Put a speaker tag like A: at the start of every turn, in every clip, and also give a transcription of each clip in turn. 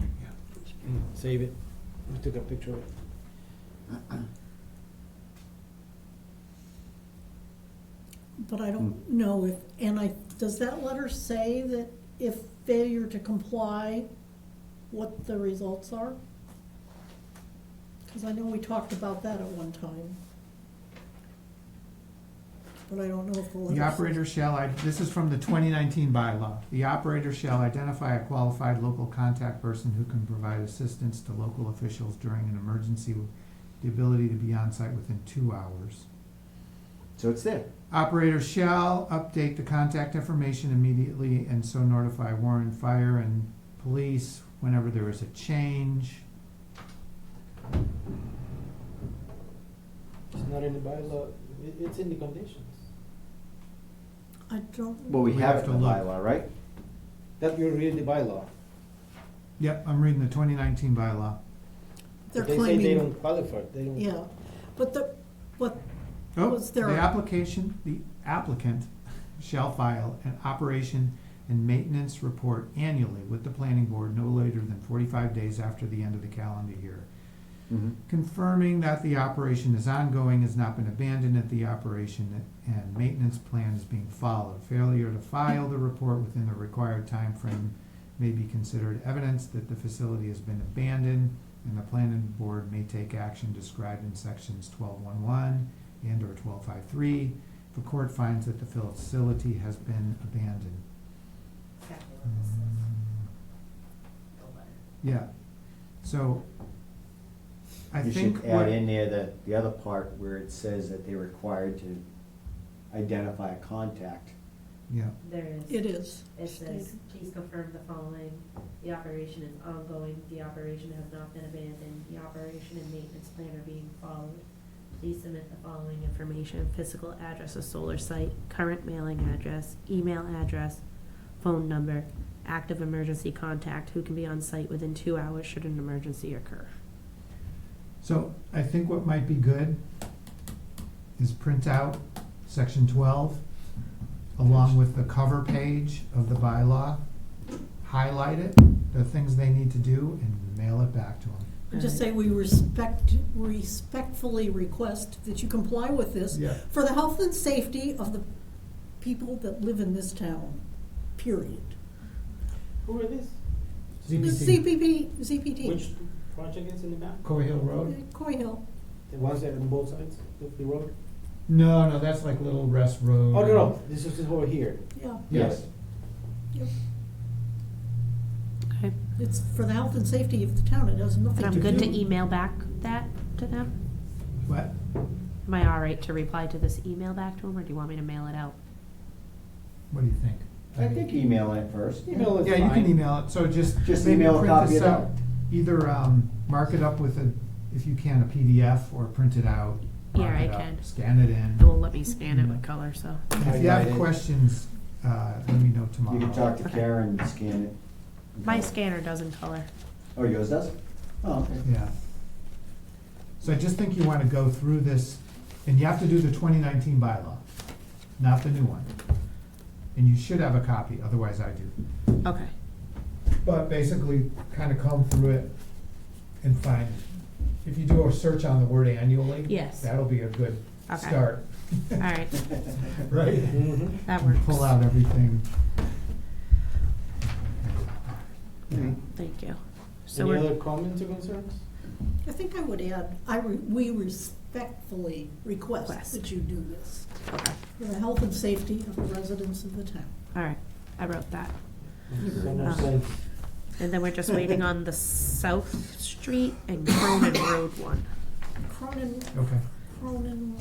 A: Mm. Save it. I took a picture of it.
B: But I don't know if, and I, does that letter say that if failure to comply, what the results are? Because I know we talked about that at one time. But I don't know if the letter.
C: The operator shall, i- this is from the twenty nineteen bylaw, the operator shall identify a qualified local contact person who can provide assistance to local officials during an emergency with the ability to be on site within two hours.
D: So it's there.
C: Operator shall update the contact information immediately and so notify Warren Fire and Police whenever there is a change.
A: It's not in the bylaw, it, it's in the conditions.
B: I don't,
D: Well, we
C: We
D: have
C: have
D: it
C: to
D: in the
C: look.
D: bylaw, right?
A: That you read the bylaw.
C: Yep, I'm reading the twenty nineteen bylaw.
B: they're
A: They say they
B: claiming,
A: don't qualify, they don't.
B: yeah, but the, but
C: Oh,
B: Was there
C: The
B: a-
C: application, the applicant shall file an operation and maintenance report annually with the planning board no later than forty-five days after the end of the calendar year.
D: Mm-hmm.
C: Confirming that the operation is ongoing, has not been abandoned at the operation, and maintenance plan is being followed. Failure to file the report within the required time frame may be considered evidence that the facility has been abandoned, and the planning board may take action described in sections twelve one one and or twelve five three. The court finds that the facility has been abandoned.
E: exactly what this is, the letter.
C: Yeah, so I
D: You
C: think
D: should
C: what.
D: add in there the, the other part where it says that they're required to identify a contact.
C: Yeah.
E: There is.
B: it is.
E: It says, please confirm the following, the operation is ongoing, the operation has not been abandoned, the operation and maintenance plan are being followed. Please submit the following information, physical address of solar site, current mailing address, email address, phone number, active emergency contact, who can be on site within two hours should an emergency occur.
C: So I think what might be good is print out section twelve along with the cover page of the bylaw, highlight it, the things they need to do, and mail it back to them.
B: And Just say we respect, respectfully request that you comply with this
C: Yeah.
B: for the health and safety of the people that live in this town, period.
A: Who are this?
C: ZPT,
B: CPP, ZPT,
A: Which project is in the map?
C: Coe Hill Road?
B: Uh, Coy Hill.
A: The ones that are on both sides of the road?
C: No, no, that's like Little Rest Road.
A: Oh, no, no, this is over here.
B: yeah.
C: Yes,
B: yep.
E: Okay,
B: It's for the health and safety of the town, it has nothing
E: and
B: to
E: I'm good
B: do.
E: to email back that to them?
C: what?
E: Am I all right to reply to this email back to them, or do you want me to mail it out?
C: What do you think?
D: I think email it first. Email is
C: Yeah, you
D: fine.
C: can email it, so just.
D: Just
C: maybe
D: email a
C: print
D: copy
C: this
D: it out.
C: Either, um, mark it up with a, if you can, a PDF or print it out.
E: Yeah,
C: mark
E: I
C: it up,
E: can.
C: Scan it in.
E: It will let me scan it with color, so.
C: And If you have
D: Highlight it.
C: questions, uh, let me know tomorrow.
D: You can talk to
E: Okay.
D: Karen and scan it.
E: My scanner doesn't color.
D: Oh, yours does? Oh, okay.
C: Yeah. So I just think you wanna go through this, and you have to do the twenty nineteen bylaw, not the new one. And you should have a copy, otherwise I do.
E: Okay.
C: But basically, kinda comb through it and find, if you do a search on the word annually.
E: Yes.
C: That'll be a good
E: Okay.
C: start.
E: All right,
C: Right?
A: Mm-hmm.
E: that
C: And
E: works.
C: Pull out everything.
D: Mhm.
E: Thank you. So
A: Any
E: we're,
A: other comments or concerns?
B: I think I would add, I, re- we respectfully request
E: Request.
B: that you do this
E: okay,
B: for the health and safety of the residents of the town.
E: all right, I wrote that.
A: So no
E: Uh,
A: sense.
E: And then we're just waiting on the South Street and Cronin Road one.
B: Cronin,
C: Okay.
B: Cronin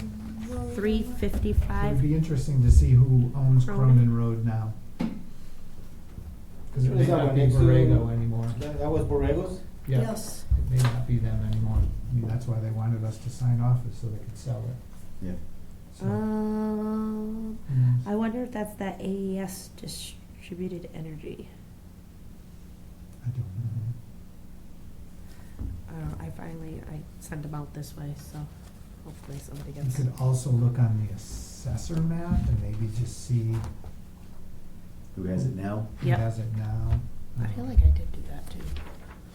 B: Road.
E: Three
C: It'd
E: fifty-five,
C: be interesting to see who owns
E: Cronin.
C: Cronin Road now. Because it may
A: Is that
C: not
A: one
C: be
A: next to-
C: Borrego anymore.
A: That, that was Borrego's?
C: Yeah,
B: Yes,
C: It may not be them anymore. I mean, that's why they wanted us to sign off, is so they could sell it.
D: Yeah.
E: Uh.
C: So,
E: um,
C: mm.
E: I wonder if that's that AES distributed energy.
C: I don't know.
E: Uh, I finally, I sent them out this way, so hopefully somebody
C: You
E: gets.
C: could also look on the assessor map and maybe just see
D: Who has it now?
C: who
E: Yep.
C: has it now.
E: I feel like I did do that too.